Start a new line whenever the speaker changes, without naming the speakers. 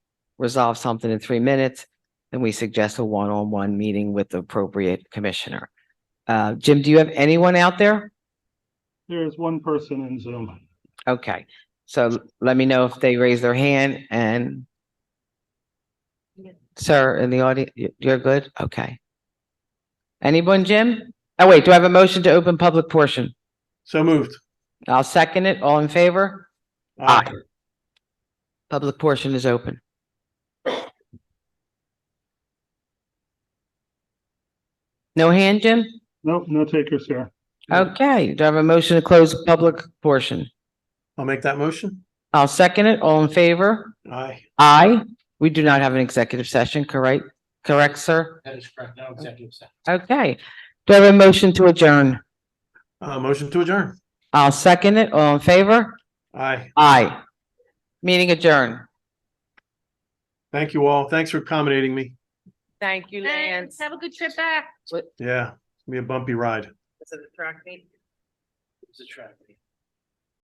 resolve something in three minutes, then we suggest a one-on-one meeting with the appropriate commissioner. Uh, Jim, do you have anyone out there?
There is one person in Zoom.
Okay, so let me know if they raise their hand and sir, in the audience, you're good? Okay. Anyone, Jim? Oh, wait, do I have a motion to open public portion?
So moved.
I'll second it. All in favor? Aye. Public portion is open. No hand, Jim?
Nope, no takers here.
Okay, do I have a motion to close public portion?
I'll make that motion.
I'll second it. All in favor?
Aye.
Aye. We do not have an executive session, correct? Correct, sir?
That is correct. No executive session.
Okay. Do I have a motion to adjourn?
Uh, motion to adjourn.
I'll second it. All in favor?
Aye.
Aye. Meeting adjourned.
Thank you all. Thanks for accommodating me.
Thank you,
Thanks. Have a good trip back.
Yeah, it's gonna be a bumpy ride.
It's a tragedy.